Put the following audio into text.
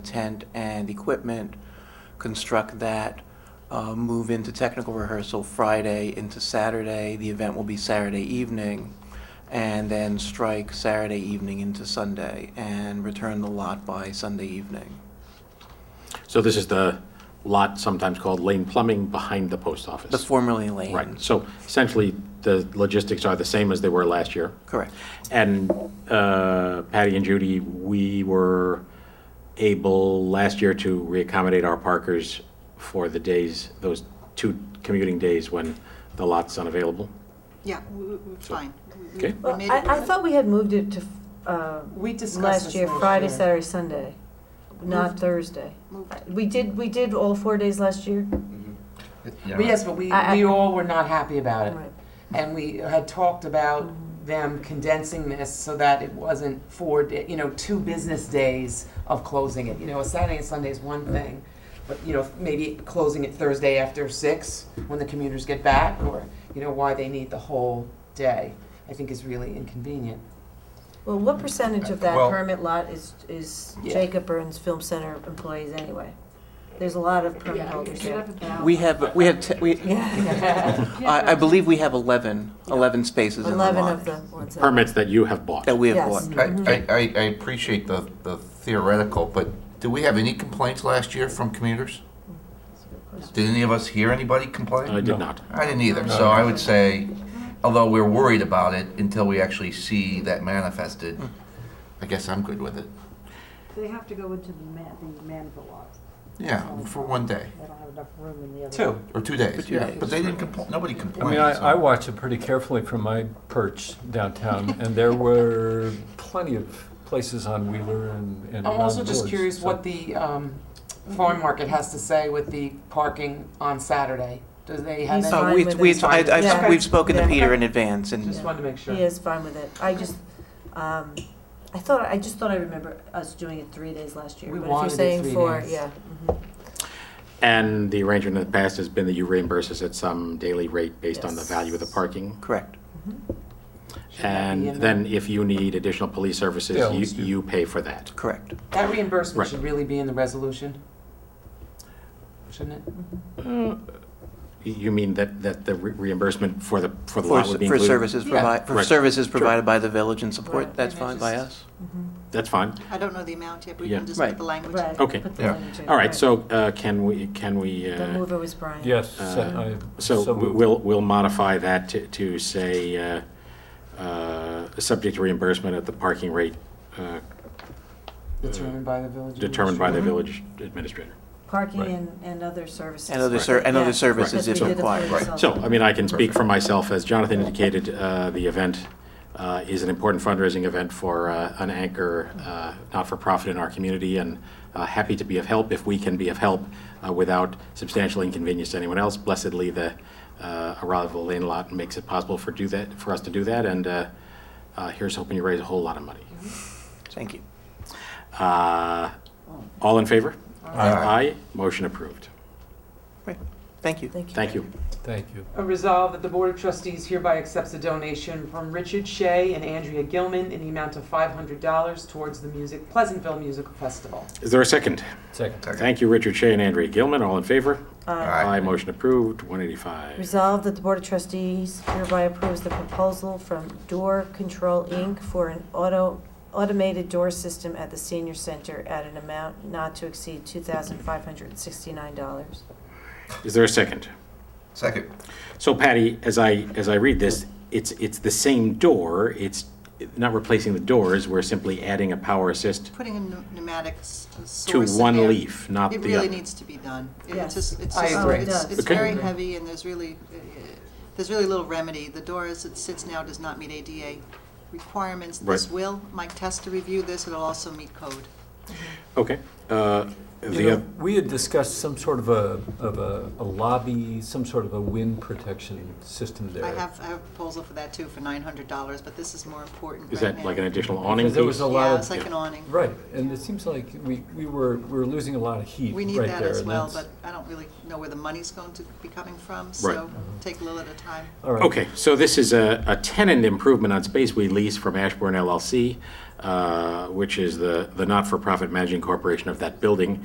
tent and equipment, construct that, uh, move into technical rehearsal Friday into Saturday. The event will be Saturday evening, and then strike Saturday evening into Sunday and return the lot by Sunday evening. So this is the lot sometimes called Lane Plumbing behind the post The office. formerly Lane. Right, so essentially, the logistics are the same as they were last year. Correct. And uh, Patty and Judy, we were able last year to reaccommodate our parkers for the days, those two commuting days when the lot's unavailable. Yeah, we- we- we're fine. We- we- Okay. we Well, made it I, I work. thought we had moved it to, uh, We discussed last this year, last Friday, year. Saturday, Sunday, not Moved. Thursday. Moved. We did, we did all four days last year? But yes, but we, I- I- we all were not happy about it. Right. Mm-hmm. And we had talked about them condensing this so that it wasn't four, da- you know, two business days of closing it. You know, a Saturday and Sunday is one thing, but, you know, maybe closing it Thursday after six when the commuters get back, or, you know, why they need the whole day, I think is really inconvenient. Well, what percentage of that Well- permit lot is, is Yeah. Jacob Burns Film Center employees anyway? There's a lot of permit holders there. We have, we have, te- we, Yeah, I, I believe we have 11, 11 spaces in the eleven of lot the ones. that- Permits that you have bought. that we have Yes. bought. I, I- I, I appreciate the, the theoretical, but do we have any complaints last year from commuters? Did any of us hear anybody I complain? did not. I didn't either, so I would say, although we're worried about it until we actually see that manifested, I guess I'm good with it. They have to go into the man, the manhole lot. Yeah, for one day, They don't have enough room in the other. Two. or two days, yeah, but they didn't complain, nobody I complained. mean, I, so- I watch it pretty carefully from my perch downtown, and there were plenty of places on Wheeler and, and I'm around also the just village, curious so- what the um, farm market has to say with the parking on Saturday. Do they have He's any? fine Uh, we, with we, it. I, I've, Yeah. we've spoken to Yeah. Peter in advance and Just wanted to make sure. He is fine with it. I just, um, I thought, I just thought I remember us doing it three days last year. We but if you're wanted it saying three four, days. Yeah. mm-hmm. And the arrangement in the past has been that you reimburse us at some daily rate based on the Yes. value of the parking. correct. Should that be And in there? then if you need additional police services, Yeah, let's you, do- you pay for that. Correct. That reimbursement Right. should really be in the resolution, shouldn't it? You mean that, that the re- reimbursement for the, for the For, lot s- would be for included? services Yeah. provided, for Correct. services Sure. provided by the village and support, Right. that's And I fine by just- us. That's fine. I don't know the amount yet, but we Yeah. can just Right. put the language. in. Right. Okay. Put the Yeah. language in. All right, so uh, can we, can we, The uh, mover was Brian. Yes, so Uh, I- so so w- moved. we'll, we'll modify that to, to say, uh, uh, subject to reimbursement at the parking rate uh, Determined by the village. determined by the Mm-hmm. administrator. village administrator. Parking Right. and, and other services. And other ser, and Yeah, other services because if we did the required. three Right. So, ourselves. I mean, I can speak for myself, as Jonathan indicated, uh, the event uh, is an important fundraising event for uh, an anchor uh, not-for-profit in our community, and uh, happy to be of help if we can be of help uh, without substantial inconvenience to anyone else. Blessedly, the uh, arrival of Lane Lot makes it possible for do that, for us to do that, and uh, uh, here's hoping you raise a whole lot of money. Thank you. Uh, All in favor? Aye. Aye, motion approved. Great. Thank you. Thank you. Thank you. Thank you. A resolve that the Board of Trustees hereby accepts a donation from Richard Shea and Andrea Gilman in the amount of $500 towards the music, Pleasantville Musical Festival. Is there a second? Second. Thank you, Richard Shea and Andrea Gilman. All in favor? Aye. Aye, motion approved, 185. Uh, Resolved that the Board of Trustees hereby approves the proposal from Door Control, Inc. for an auto, automated door system at the senior center at an amount not to exceed $2,569. Is there a second? Second, So Patty, as I, as I read this, it's, it's the same door, it's not replacing the doors, we're simply adding a power assist Putting a pneu- pneumatic s- source to in one there. leaf, not the It other. really needs to be done. It- It's Yes. just, it's I just, agree. it's, It it's does. very Okay. heavy and there's really, uh, there's really little remedy. The door as it sits now does not meet ADA requirements. This Right. will, Mike Testa reviewed this, it'll also meet code. Okay. uh, You The, know, we had discuoth some sort of a, of a a lobby, some sort of a wind protection system there. I have, I have a proposal for that too, for nine hundred dollars, but this is more important is right that now. like an additional awning Because there was piece? a lot Yeah, of- it's like an awning. Right, and it seems like we, we were, we were losing a lot of heat We right need there. that as and well, but that's- I don't really know where the money's going to be coming from, so Mm-hmm. take a little at a time. All right. Okay, so this is a a tenant improvement on space we lease from Ashburn LLC. Uh, uh, which is the, the not-for-profit managing corporation of that building,